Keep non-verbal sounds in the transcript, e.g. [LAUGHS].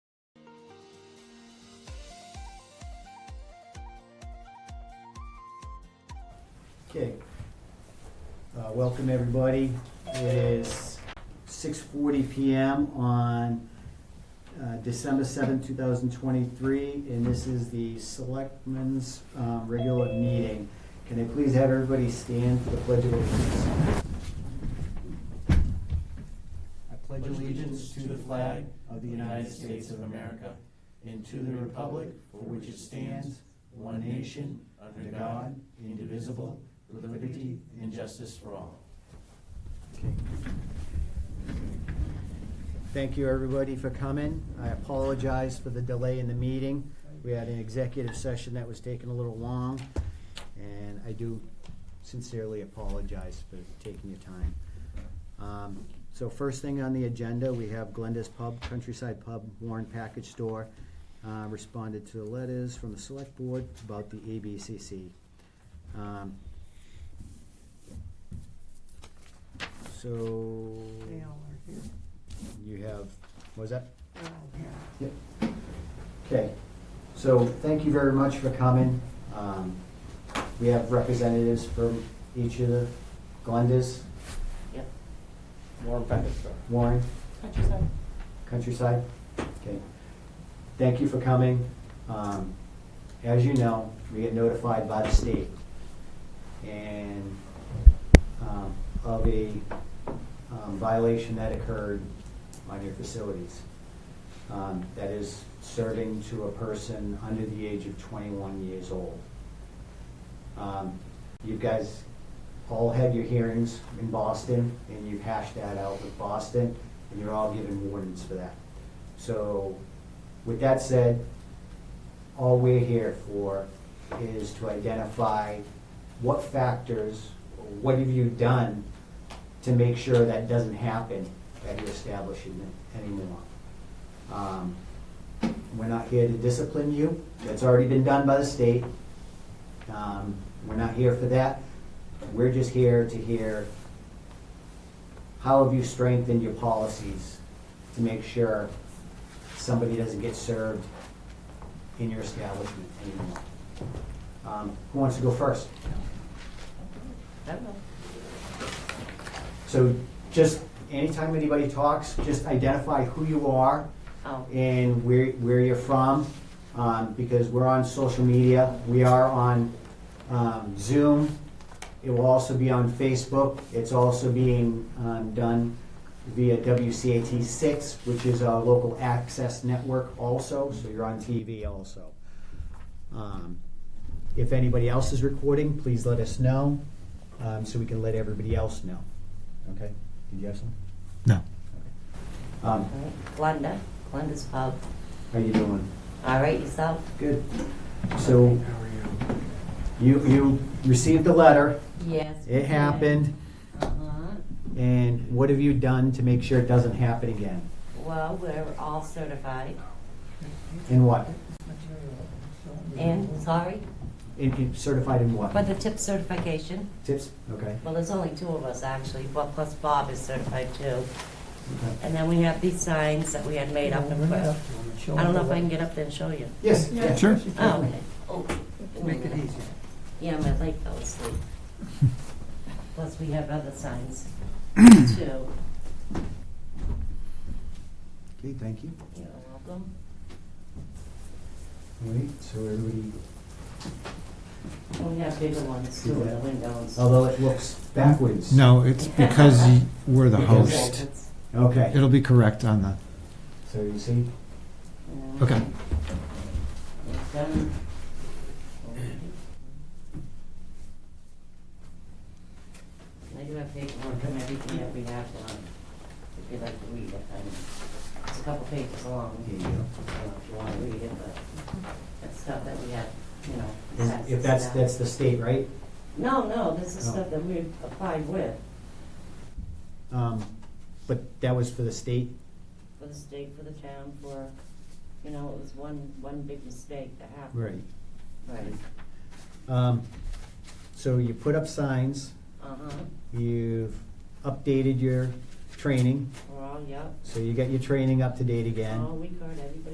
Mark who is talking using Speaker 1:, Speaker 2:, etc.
Speaker 1: Okay. Uh, Welcome, everybody. It is 6:40 PM on uh, December seventh, two 2023, and this is the Selectmen's um, regular meeting. Can I please have everybody stand for the Pledge of Allegiance? I
Speaker 2: pledge allegiance to the flag of the United States of America and to the republic for which it stands, one nation, under God, indivisible, with liberty and justice for all.
Speaker 1: Thank you, everybody, for coming. I apologize for the delay in the meeting. We had an executive session that was taking a little long, and I do sincerely apologize for taking your time. Um, So first thing on the agenda, we have Glenda's Pub, Countryside Pub, Warren Package Store, uh, responded to the letters from the Select Board about the ABCC. Um, So.
Speaker 3: They all are here,
Speaker 1: You have, what was that?
Speaker 3: they're all here.
Speaker 1: Yep. Okay, so thank you very much for coming. Um, We have representatives from each of the Glendas,
Speaker 2: Yep. Warren Packard Store.
Speaker 1: Warren,
Speaker 4: Countryside.
Speaker 1: Countryside. Okay, thank you for coming. Um, As you know, we get notified by the state and um, of a um, violation that occurred on your facilities. um, that is serving to a person under the age of 21 years old. Um, You guys all had your hearings in Boston, and you hashed that out with Boston, and you're all given warnings for that. So with that said, all we're here for is to identify what factors, what have you done to make sure that doesn't happen at your establishment anymore. Um, We're not here to discipline you. That's already been done by the state. Um, We're not here for that. We're just here to hear, how have you strengthened your policies to make sure somebody doesn't get served in your establishment anymore? Um, Who wants to go first?
Speaker 2: I don't know.
Speaker 1: So just, anytime anybody talks, just identify who you are
Speaker 2: Oh.
Speaker 1: and where, where you're from, um, because we're on social media. We are on, um, Zoom. It will also be on Facebook. It's also being, um, done via WCAT six, which is our local access network also, so you're on TV also. Um, If anybody else is recording, please let us know, um, so we can let everybody else know. Okay? Did you have something?
Speaker 5: No.
Speaker 1: Okay. Um,
Speaker 6: All right, Glenda, Glenda's Pub.
Speaker 1: how you doing?
Speaker 6: All right, yourself?
Speaker 1: Good. So you, you received the letter,
Speaker 6: Yes.
Speaker 1: it happened,
Speaker 6: Uh-huh.
Speaker 1: and what have you done to make sure it doesn't happen again?
Speaker 6: Well, we're all certified.
Speaker 1: In what?
Speaker 6: And, sorry,
Speaker 1: In- in- Certified in what?
Speaker 6: for the tip certification,
Speaker 1: Tips? Okay.
Speaker 6: well, there's only two of us actually, well, plus Bob is certified too.
Speaker 1: Okay.
Speaker 6: And then we have these signs that we had made up and put. I don't know if I can get up there and show you.
Speaker 1: Yes, yeah.
Speaker 5: Sure.
Speaker 6: Oh, okay. Oh, give me a
Speaker 3: Make it
Speaker 6: minute.
Speaker 3: easier.
Speaker 6: Yeah, my leg fell
Speaker 1: [LAUGHS]
Speaker 6: asleep. Plus, we have other
Speaker 1: [CLEARS THROAT]
Speaker 6: signs too.
Speaker 1: Okay, thank you.
Speaker 6: You're welcome.
Speaker 1: All right, so everybody,
Speaker 6: We have bigger ones too, the windows.
Speaker 1: although it looks backwards.
Speaker 5: No, it's because y- we're the
Speaker 1: Oh,
Speaker 5: host.
Speaker 1: Okay,
Speaker 5: It'll be correct on the,
Speaker 1: so you see,
Speaker 5: okay.
Speaker 6: I do have paperwork on everything that we have done, if you'd like to read it, I mean, it's a couple pages long,
Speaker 1: here
Speaker 6: you
Speaker 1: you go.
Speaker 6: know, if you wanna read it, but that's stuff that we have, you know.
Speaker 1: Is- If that's,
Speaker 6: taxes and that.
Speaker 1: that's Oh. the state, right?
Speaker 6: No, no, this is
Speaker 1: No.
Speaker 6: stuff that we've applied with,
Speaker 1: Um, But that was for the state?
Speaker 6: for the state, for the town, for, you know, it was one, one big mistake that happened.
Speaker 1: Right.
Speaker 6: Right.
Speaker 1: Um, So you put up signs,
Speaker 6: Uh-huh,
Speaker 1: you've updated your training,
Speaker 6: we're all, yep,
Speaker 1: so you got your training up to date again.
Speaker 6: all we heard, everybody